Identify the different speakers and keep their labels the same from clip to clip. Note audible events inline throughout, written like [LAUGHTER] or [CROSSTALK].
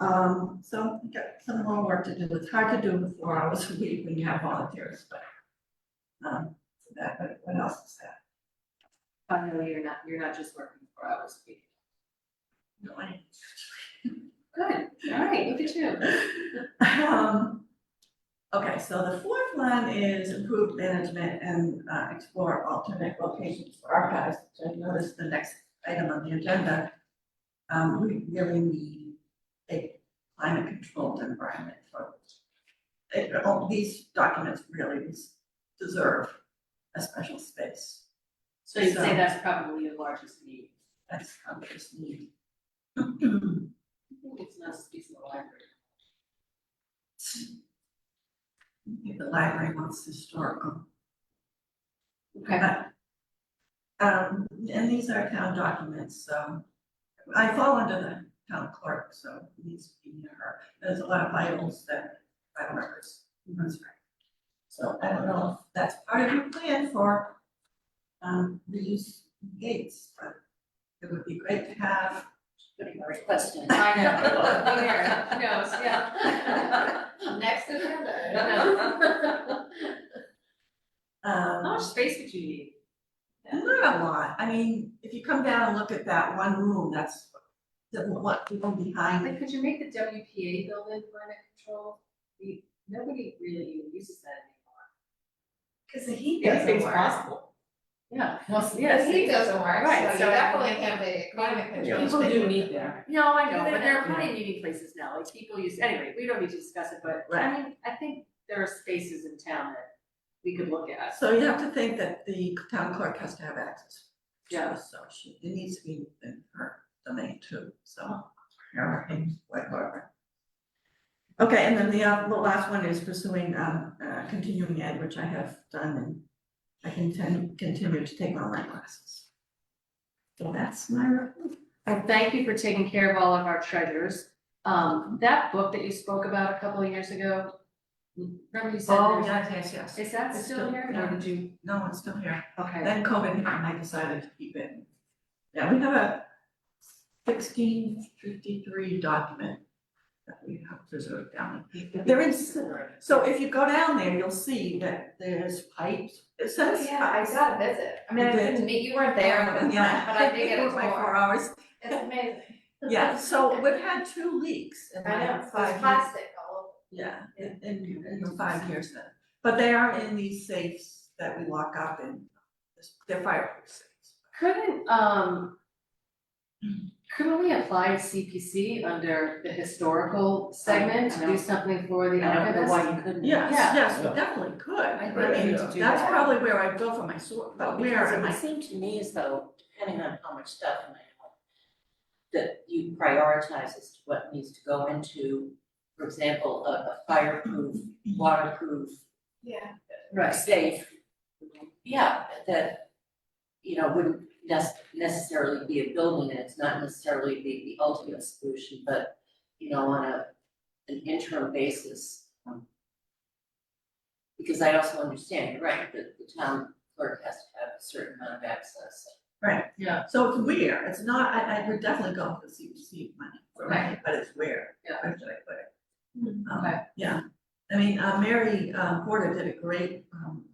Speaker 1: Um, so we got some more work to do. It's hard to do with four hours a week when you have volunteers, but. Um, so that, but what else is that?
Speaker 2: Finally, you're not, you're not just working four hours a week.
Speaker 1: No, I-
Speaker 2: Good, all right, look at you.
Speaker 1: [LAUGHS] Um, okay, so the fourth one is improved management and uh, explore alternate locations for archives, which I noticed the next item on the agenda. Um, we really need a climate controlled environment for, it, all these documents really des- deserve a special space.
Speaker 2: So you'd say that's probably the largest need.
Speaker 1: That's how we just need. [CLEARS THROAT]
Speaker 2: I think It's not space in the library.
Speaker 1: If the library wants historical.
Speaker 2: Okay,
Speaker 1: Um, and these are town documents, so I fall under the town clerk, so it needs to be near her. There's a lot of vitals that vital records. That's right. So I don't know if that's part of your plan for um reuse gates, but it would be great to have.
Speaker 2: putting a request in. I [LAUGHS] know. Who knows, yeah. [LAUGHS] Next agenda, I don't know. How much
Speaker 1: Um,
Speaker 2: space would you need?
Speaker 1: not a lot. I mean, if you come down and look at that one room, that's the one, the one behind
Speaker 2: Like, could you make the WPA building climate control? We, nobody really even uses that anymore.
Speaker 3: [LAUGHS] Cause the heat doesn't
Speaker 4: Anything's
Speaker 3: work.
Speaker 4: possible.
Speaker 2: Yeah.
Speaker 3: The
Speaker 2: Yes.
Speaker 3: heat doesn't work,
Speaker 2: Right,
Speaker 3: so you
Speaker 2: so-
Speaker 3: definitely have the climate control.
Speaker 4: People do need that.
Speaker 2: No, I know,
Speaker 3: But
Speaker 2: but
Speaker 3: then-
Speaker 2: there are plenty of meeting places now, like people use, anyway, we don't need to discuss it, but I mean, I think there are spaces in town that we could look at.
Speaker 1: So you have to think that the town clerk has to have access. to
Speaker 2: Yeah.
Speaker 1: this, So she, it needs to be in her domain too, so. yeah, I think, whatever. Okay, and then the, uh, the last one is pursuing, um, uh, continuing ed, which I have done and I can ten- continue to take online classes. So that's my, report.
Speaker 2: Well, thank you for taking care of all of our treasures. Um, that book that you spoke about a couple of years ago, remember you said
Speaker 1: oh,
Speaker 2: there's,
Speaker 1: yes, yes, yes.
Speaker 2: is that
Speaker 1: It's
Speaker 2: still here? Or did you,
Speaker 1: No, it's still here.
Speaker 2: okay,
Speaker 1: Then COVID hit and I decided to keep it. Yeah, we have a sixteen fifty-three document that we have preserved down. There is, so if you go down there, you'll see that there's pipes, it says.
Speaker 3: Yeah, I got a visit. I mean, I
Speaker 1: You did.
Speaker 3: didn't meet, you weren't there, but
Speaker 1: Yeah. [LAUGHS]
Speaker 3: I did get a
Speaker 1: It was like
Speaker 3: tour.
Speaker 1: four hours.
Speaker 3: It's amazing. [LAUGHS]
Speaker 1: Yeah, so we've had two leaks in
Speaker 3: I know,
Speaker 1: like
Speaker 3: it's
Speaker 1: five years.
Speaker 3: plastic all
Speaker 1: Yeah, in, in, in five years then, but they are in these safes that we lock up and they're fireproof safes.
Speaker 2: couldn't, um, couldn't we apply to CPC under the historical segment to
Speaker 4: I know.
Speaker 2: do something for the
Speaker 4: I don't know
Speaker 2: archivist?
Speaker 4: why you couldn't.
Speaker 1: Yes,
Speaker 2: Yeah.
Speaker 1: yes, we
Speaker 5: Yeah.
Speaker 1: definitely could. I
Speaker 2: think
Speaker 4: we
Speaker 1: mean,
Speaker 4: need to
Speaker 2: do
Speaker 1: That's
Speaker 2: that.
Speaker 1: probably where I'd go for my sort, but where
Speaker 4: Because it
Speaker 1: am
Speaker 4: would
Speaker 1: I?
Speaker 4: seem to me as though, depending on how much stuff in my home, that you prioritize as to what needs to go into, for example, a, a fireproof, waterproof,
Speaker 3: Yeah.
Speaker 2: Right.
Speaker 4: safe. Yeah, that, you know, wouldn't nes- necessarily be a building, and it's not necessarily the, the ultimate solution, but, you know, on a, an interim basis. um, Because I also understand, you're right, that the town clerk has to have a certain amount of access.
Speaker 1: So it's where, it's not, I, I would definitely go for CPC money, right,
Speaker 2: Right.
Speaker 1: but it's where,
Speaker 2: Yeah.
Speaker 1: where should I put it? Um,
Speaker 2: Okay.
Speaker 1: Yeah, I mean, uh, Mary, uh, Porter did a great, um,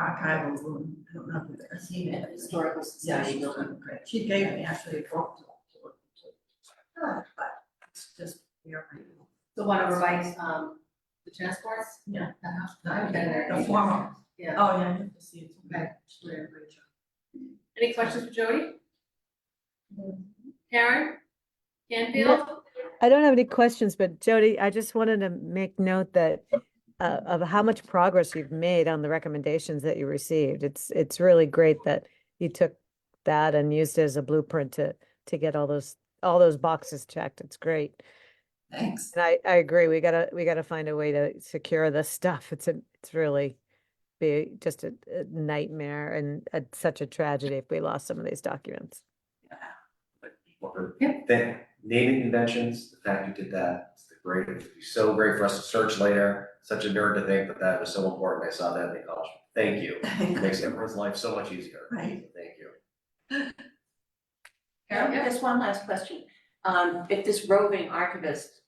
Speaker 1: archival room, I don't know if you've ever seen
Speaker 4: And
Speaker 1: it.
Speaker 4: the historical
Speaker 1: Yeah,
Speaker 4: society
Speaker 1: she's
Speaker 4: building.
Speaker 1: done great, she gave me actually a book to, to, look into. but it's just, where I am.
Speaker 2: The one over by, um, the tennis courts?
Speaker 1: Yeah.
Speaker 2: Uh-huh.
Speaker 1: The formal,
Speaker 2: Yeah.
Speaker 1: oh, yeah, you have to see it, okay.
Speaker 2: Okay. Any questions for Jody? Karen? Canfield?
Speaker 6: I don't have any questions, but Jody, I just wanted to make note that uh, of how much progress you've made on the recommendations that you received. It's, it's really great that you took that and used it as a blueprint to, to get all those, all those boxes checked. It's great.
Speaker 1: Thanks.
Speaker 6: [LAUGHS] And I, I agree. We gotta, we gotta find a way to secure this stuff. It's a, it's really be just a a nightmare and a- such a tragedy if we lost some of these documents.
Speaker 5: Or
Speaker 2: Yeah.
Speaker 5: that naming conventions, the fact you did that, it's the great, it'd be so great for us to search later. Such a nerd to think that that was so important. I saw that in the college. Thank you. Makes everyone's life so much easier.
Speaker 1: Right.
Speaker 5: Thank you.
Speaker 2: Karen, yeah.
Speaker 4: Just one last question. Um, if this roving archivist